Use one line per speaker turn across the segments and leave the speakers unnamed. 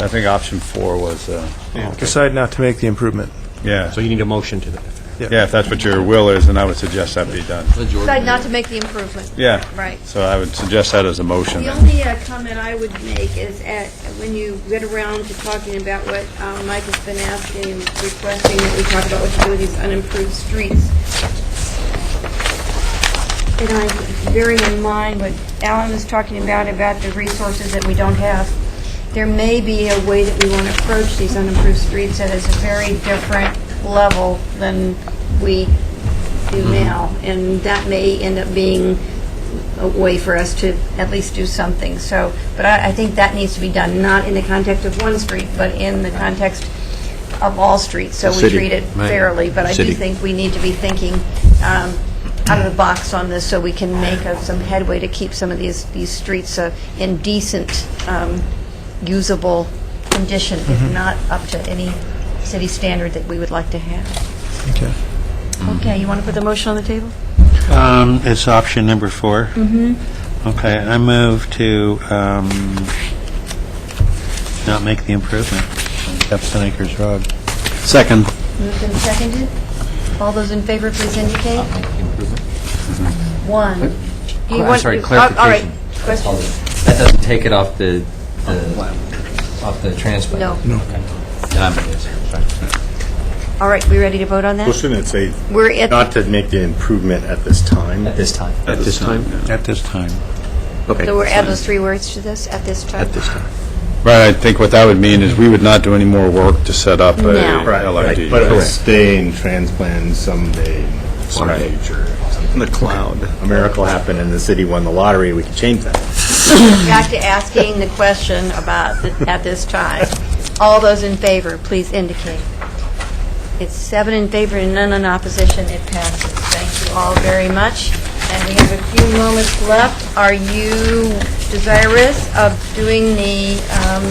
I think option four was, uh,
Decide not to make the improvement.
yeah,
So you need a motion to that.
yeah, if that's what your will is, then I would suggest that be done.
Decide not to make the improvement.
Yeah.
Right.
So I would suggest that as a motion.
The
then.
only uh, comment I would make is at, when you get around to talking about what um, Mike has been asking, and requesting that we talk about what to do with these unimproved streets. And I'm bearing in mind what Alan was talking about, about the resources that we don't have. There may be a way that we want to approach these unimproved streets that is a very different level than we do
Mm-hmm.
now. And that may end up being a way for us to at least do something. So, but I, I think that needs to be done, not in the context of one street, but in the context of all streets, so we
City,
treat it
right.
fairly. But I do
City.
think we need to be thinking um, out of the box on this, so we can make uh, some headway to keep some of these, these streets uh, in decent, um, usable condition,
Mm-hmm.
if not up to any city standard that we would like to have.
Okay.
Okay, you want to put the motion on the table?
Um, It's option number 4 Mm-hmm. Okay, I move to um, not make the improvement on Jefferson Acres Road. Second.
Moved and seconded. All those in favor, please indicate. One. Do you
I'm
want-
sorry,
you- all- All right,
clarification.
question?
That doesn't take it off the, the- off the transplant?
No.
Then I'm sorry.
All right, we ready to vote on that?
Shouldn't it say
We're at,
not to make the improvement at this time?
At this time.
At this time?
At this time.
so we're add those three words to this, at this time?
time.
Right, I think what that would mean is we would not do any more work to set up a
No. Right,
LID.
But it'll stay in transplant someday, some future. In the cloud. A miracle happened and the city won the lottery, we could change that.
Back to asking the question about, the- at this time. All those in favor, please indicate. It's seven in favor and none in opposition, it passes. Thank you all very much. And we have a few moments left. Are you desirous of doing the um,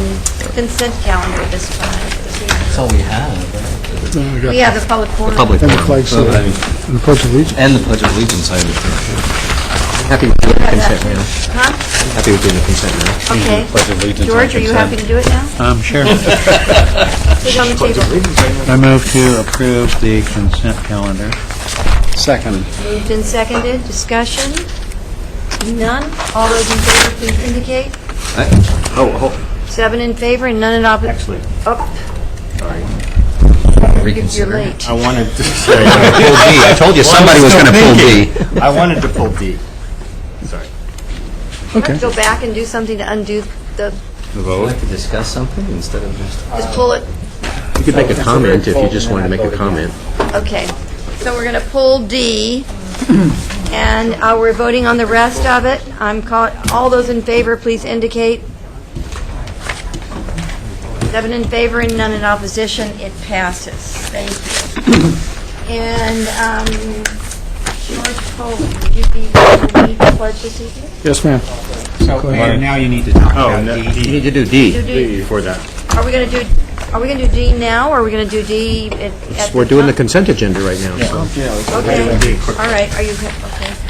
consent calendar this time? this evening?
That's all we have.
We have the public forum.
Public
And the
forum.
flag salute.
I mean,
And the Pledge of Allegiance.
And the Pledge of Allegiance, I would think. Happy with doing the consent, man.
Huh?
Happy with doing the consent, man.
Okay.
Pledge of allegiance and
George, are you
consent.
happy to do it now?
Um, sure.
Sit on the table.
I move to approve the consent calendar. Second.
Moved and seconded, discussion? None? All those in favor, please indicate.
Oh,
Seven in favor and none in opposition.
Actually,
Oh, you're- you're
Reconsider.
late.
I wanted to say,
Pull D. I told you, somebody was going to pull D.
I wanted to pull D. Sorry.
You have to go back and do something to undo the,
Would you like to discuss something instead of just...
just pull it,
You could make a comment if you just wanted to make a comment.
okay. So we're going to pull D, and uh, we're voting on the rest of it. I'm call, all those in favor, please indicate. Seven in favor and none in opposition, it passes. Thank you. And, um, George Foley, would you be ready to lead the pledge this evening?
Yes, ma'am.
So, Mayor, now you need to talk
Oh, no,
You
D
need to do D.
You do-
before that.
Are we going to do, are we going to do D now, or are we going to do D at- at?
We're doing the
time?
consent agenda right now, so.
Okay,
It'll be a quick-
all right, are you, okay.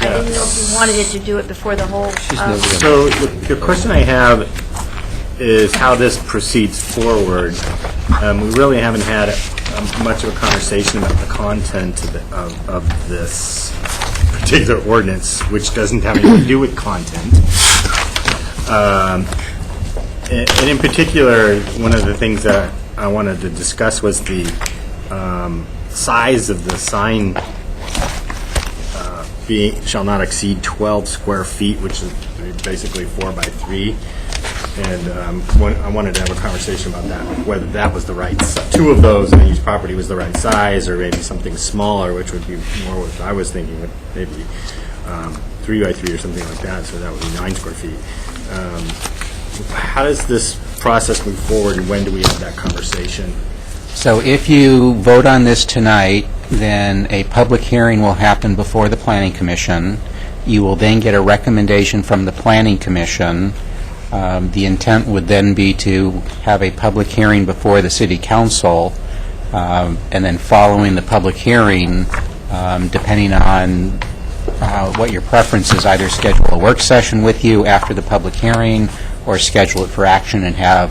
I didn't know if you wanted it to do it before the whole. um,
So the the question I have is how this proceeds forward. Um, We really haven't had um, much of a conversation about the content of the- of, of this particular ordinance, which doesn't have anything to do with content. Um, And and in particular, one of the things that I wanted to discuss was the um, size of the sign be, shall not exceed 12 square feet, which is basically four by three. And um, one- I wanted to have a conversation about that, whether that was the right, si- two of those in each property was the right size, or maybe something smaller, which would be more what I was thinking, would maybe um, three by three or something like that, so that would be nine square feet. Um, How does this process move forward, and when do we have that conversation?
So if you vote on this tonight, then a public hearing will happen before the Planning Commission. You will then get a recommendation from the Planning Commission. Um, The intent would then be to have a public hearing before the City Council, um, and then following the public hearing, um, depending on uh, what your preference is, either schedule a work session with you after the public hearing, or schedule it for action and have